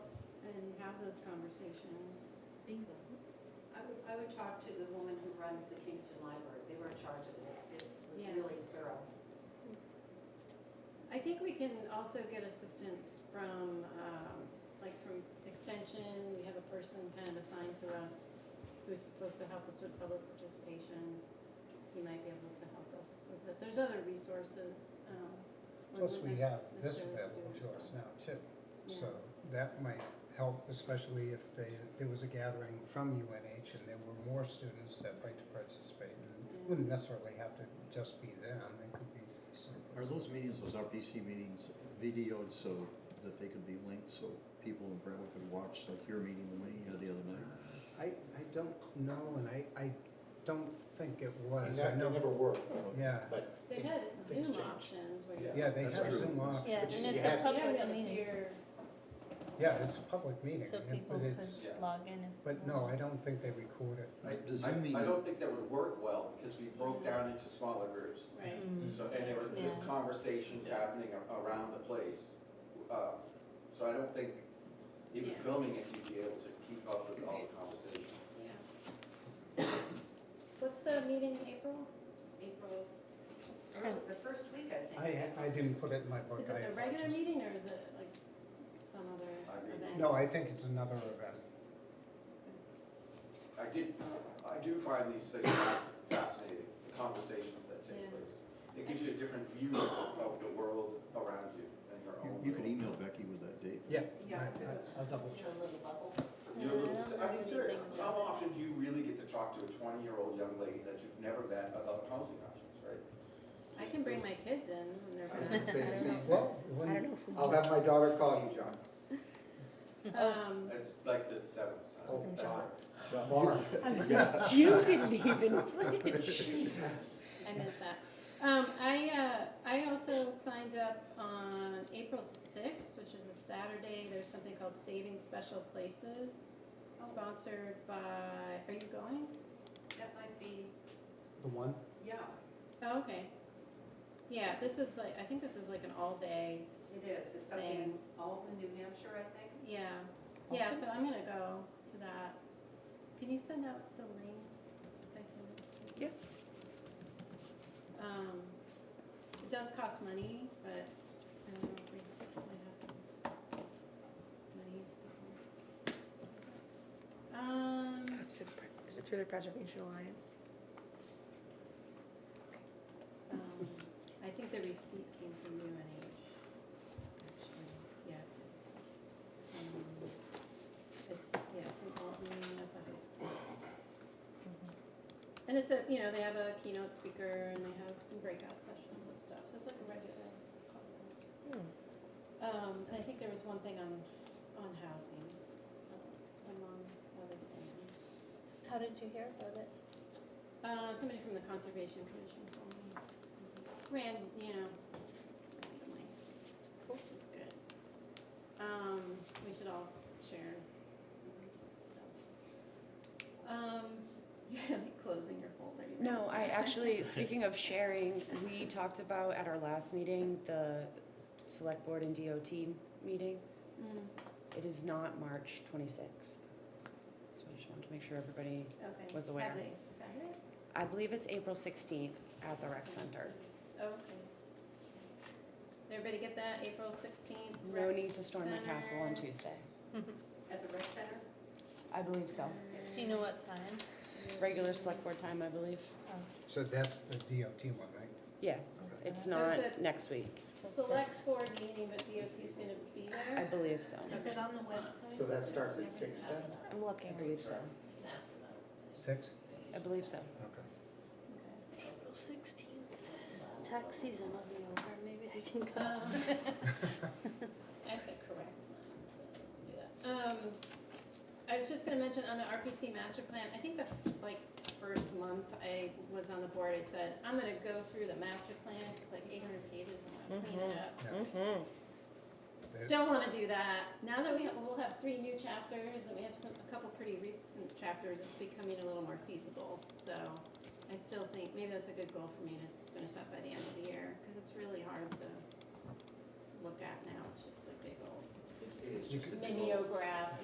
have those conversations. Bingo. I would, I would talk to the woman who runs the Kingston Library. They were in charge of it. It was Yeah. really thorough. I think we can also get assistance from, um, like from Extension, we have a person kind of assigned to us who's supposed to help us with public participation. He might be able to help us with that. There's other resources. um, one Plus, would we have this necessarily have available do it to us now ourselves. too. Yeah. So that might help, especially if they, there was a gathering from UNH and there were more students that like to participate. And It wouldn't necessarily have to just be them, it could be some. Are those meetings, those RPC meetings videoed so that they could be linked, so people in Brentwood could watch, like your meeting, the meeting the other night? I, I don't know, and I, I don't think it And was. I that know- never worked. Yeah. But They had things Zoom change. options where you. Yeah, they That's have true. Zoom Yeah, options. Which and you it's a had to- You don't public really meeting, hear, Yeah, it's a public meeting, so and- people but it's, Yeah. could log in. if but they no, want. I don't think they record it. The I, Zoom I don't meeting, think that would work well, because we broke down into smaller groups. right. Mm. So, and there were just Yeah. conversations happening a- around the place. Uh, So I don't think, even Yeah. filming it, you'd be able to keep up with all the conversations. Mm-hmm. Yeah. What's the meeting in April? April, Ten. the first week, I think. I, I didn't put it in my book. Is I it the regular apologize. meeting or is it like some other I mean- event? No, I think it's another event. I did, I do find these things fasc- fascinating, the conversations that Yeah. take place. It gives you a different view of of the world around you and your you- own. you could little- email Becky with that date. Yeah. Yeah. I- I- I'll double check. Your little bubble. You're, I don't I know mean, seriously, anything how about it. often do you really get to talk to a twenty-year-old young lady that you've never met about housing options, right? I can bring my kids in when they're. I was gonna say the same Well, thing. I don't when, know if we. I'll have my daughter call you, John. Um, It's like the seventh time. Oh, That's John. right. Lauren. You didn't even finish. I missed that. Um, I, uh, I also signed up on April sixth, which is a Saturday. There's something called Saving Special Places, Oh. sponsored by, are you going? That might be, the one, yeah, Oh, okay. Yeah, this is like, I think this is like an all-day it is. It's up in Thing. Alden, New Hampshire, I think. Yeah, yeah, so I'm gonna go to that. Can you send out the link? If I send it to you? Um, it does cost money, but I don't know if we we have some money. Um, Is it through the Preservation Alliance? um, I think the receipt came from UNH, actually, yeah. Um, It's, yeah, it's in Alton at the high school. And it's a, you know, they have a keynote speaker and they have some breakout sessions and stuff, so it's like a regular conference. Um, and I think there was one thing on, on housing, uh, among other things. How did you hear about it? Uh, somebody from the Conservation Commission told me. Ran, you know, randomly. This is good. Um, we should all share stuff. Um, you're like closing your folder. you No, ready? I actually, speaking of sharing, we talked about at our last meeting, the Select Board and DOT meeting. Mm, It is not March 26th. So I just wanted to make sure everybody, Okay. Was aware. Have they said it? I believe it's April 16th at the rec center. Oh, Okay. Everybody get that, April sixteenth? No need to storm the castle on Tuesday. At the rec center? I believe so. Do you know what time? Regular Select Board time, I believe. Oh, so that's the DOT one, right? Yeah, it's So it's not a- next week. Select board meeting, but DOT's gonna be there? I believe so. Is it on the website? So that starts at six then? I'm looking. I believe so. Six? I believe so. Okay. April sixteenth, tax season will be over, maybe I can go. Um, I have to correct mine. Do that. Um, I was just gonna mention on the RPC master plan, I think the, f- like, first month I was on the board, I said, I'm gonna go through the master plan, it's like eight hundred pages, and I'm gonna clean it up. Mm-hmm. Still want to do that. Now that we have, we'll have three new chapters and we have some, a couple pretty recent chapters, it's becoming a little more feasible. So I still think maybe that's a good goal for me to finish up by the end of the year because it's really hard to look at now. It's just a big old It is just a- mimeograph